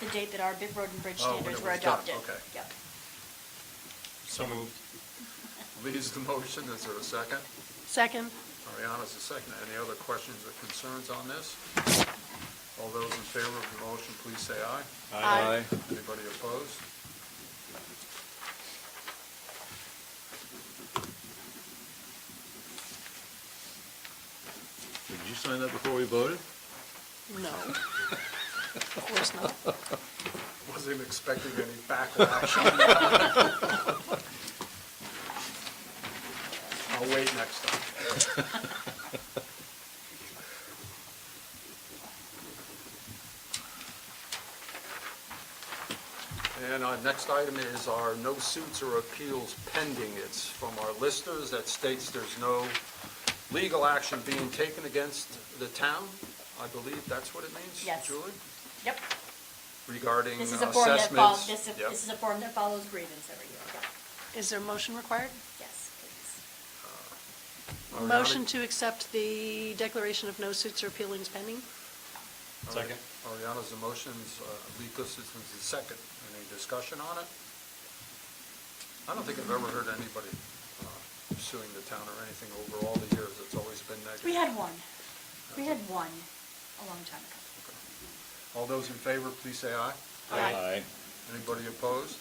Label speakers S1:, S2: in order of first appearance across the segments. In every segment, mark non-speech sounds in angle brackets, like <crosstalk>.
S1: the date that our Big Road and Bridge
S2: Oh, when
S1: standards
S2: it
S1: were
S2: was done,
S1: adopted.
S2: okay.
S1: Yep.
S2: So moved. Lee's the motion, is there a second?
S3: Second.
S2: Ariana's the second. Any other questions or concerns on this? All those in favor of the motion, please say aye.
S3: Aye.
S2: Anybody opposed?
S4: Did you sign that before we voted?
S3: No.
S1: <laughs>
S3: Of course not.
S2: Wasn't expecting any backlash. <laughs> on that. I'll wait next time. And our next item is our no suits or appeals pending. It's from our listers that states there's no legal action being taken against the town. I believe that's what it means,
S1: Yes.
S2: Julie?
S1: Yep.
S2: regarding uh,
S1: This is a form that follows,
S2: assessments.
S1: this is,
S2: Yep.
S1: this is a form that follows grievance every year. Yep.
S3: Is there a motion required?
S1: Yes, please.
S2: Ariana-
S3: Motion to accept the declaration of no suits or appealings pending?
S2: Ari-
S5: Second.
S2: Ariana's the motions, uh, Lee Gustafson's the second. Any discussion on it? I don't think I've ever heard anybody uh, suing the town or anything over all the years. It's always been negative.
S1: We had one. We had one a long time ago.
S2: All those in favor, please say aye.
S4: Aye.
S2: Anybody opposed?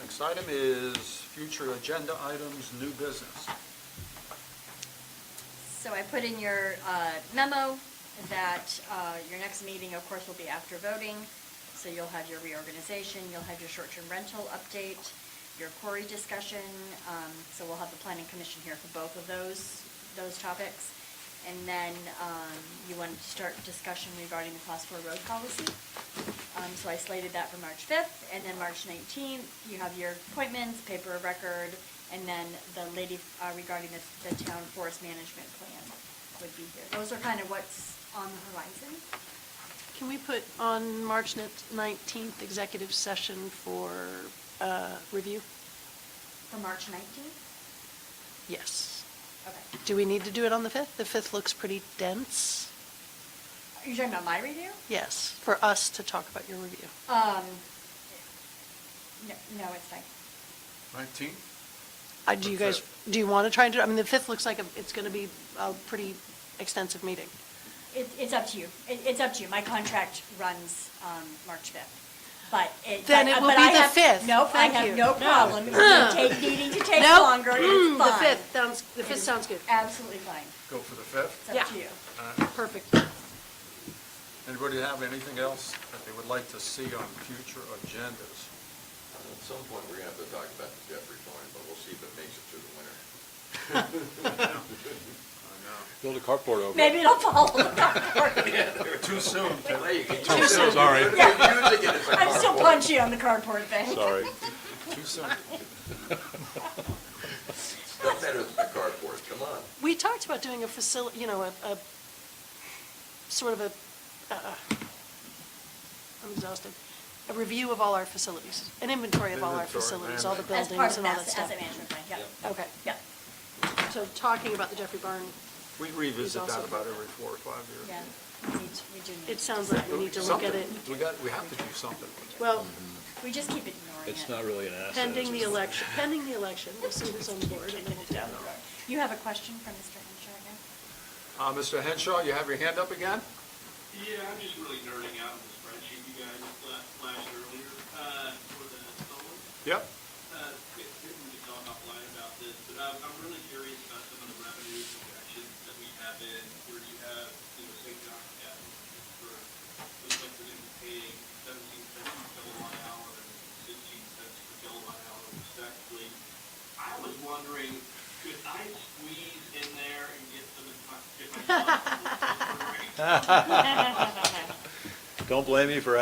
S2: Next item is future agenda items, new business.
S1: So I put in your uh, memo that uh, your next meeting, of course, will be after voting. So you'll have your reorganization, you'll have your short-term rental update, your quarry discussion. um, So we'll have the planning commission here for both of those, those topics. And then um, you wanted to start discussion regarding the class four road policy. Um, So I slated that for March 5th, and then March 19th, you have your appointments, paper of record, and then the lady uh, regarding the, the town forest management plan would be here. Those are kind of what's on the horizon.
S3: Can we put on March ni- 19th executive session for uh, review?
S1: For March 19th?
S3: Yes.
S1: Okay.
S3: Do we need to do it on the 5th? The 5th looks pretty dense.
S1: Are you talking about my review?
S3: Yes, for us to talk about your review.
S1: Um, no, no, it's fine.
S2: 19?
S3: Uh, Do you
S2: The
S3: guys, do you want to try and do, I mean, the 5th looks like a- it's going to be a pretty extensive meeting.
S1: It, it's up to you. It, it's up to you. My contract runs, um, March fifth. But it.
S3: Then
S1: but- uh,
S3: it will
S1: but
S3: be
S1: I
S3: the
S1: have-
S3: 5th.
S1: Nope, I
S3: Thank you.
S1: have no problem. If
S3: <laughs>
S1: you take, needing to take
S3: Nope. Mm,
S1: longer, it's
S3: Hmm, The
S1: fine.
S3: 5th sounds, the
S1: It
S3: 5th
S1: is
S3: sounds good.
S1: Absolutely fine.
S2: Go for the 5th?
S1: It's up
S3: Yeah.
S1: to you.
S3: Perfect.
S2: Anybody have anything else that they would like to see on future agendas?
S6: At some point, we're gonna have to talk about the Jeffrey Farm, but we'll see if it makes it through the winter.
S2: I
S4: Build a carport over it.
S1: Maybe it'll fall. <laughs> I'm
S2: know. Too soon, Tim.
S6: There you go.
S4: Too soon, sorry.
S6: They're using it as a
S1: still
S6: carport.
S1: punchy on the cardboard thing. <laughs>
S4: Sorry.
S2: Too soon.
S6: Still better than a carport, come on.
S3: We talked about doing a facility, you know, a, a, sort of a, uh, I'm exhausted, a review of all our facilities, an inventory of all our
S2: Inventory,
S3: facilities, all the
S2: management.
S1: As
S3: buildings and
S1: part
S3: all
S1: of
S3: that
S1: that
S3: stuff.
S1: asset management plan, yeah,
S3: Okay,
S1: yeah,
S3: so talking about the Jeffrey Barn,
S2: We revisit
S3: He's
S2: that
S3: also-
S2: about every four or five years.
S1: yeah. We need, to- we do need. to
S3: it sounds
S1: decide.
S3: like we need to look at it.
S2: Something. We got, we have to do something.
S3: Well,
S1: We just keep ignoring it.
S4: It's not really an asset.
S3: pending
S4: is
S3: the
S4: it?
S3: election, pending the election, we'll see who's on the board and then we'll down the road.
S1: You have a question for Mr. Henshaw again?
S2: Uh, Mr. Henshaw, you have your hand up again?
S7: Yeah, I'm just really nerding out on the spreadsheet you guys fla- flashed earlier, uh, for the solar.
S2: Yep.
S7: Uh, if, if we could talk offline about this, but I'm, I'm really curious about some of the revenue projections that we have in, where you have, you know, say, John, yeah, for, looks like we're gonna be paying seventeen cents per kilowatt hour and sixteen cents per kilowatt hour respectively. I was wondering, could I squeeze in there and get some, of my- get my.
S4: don't blame me for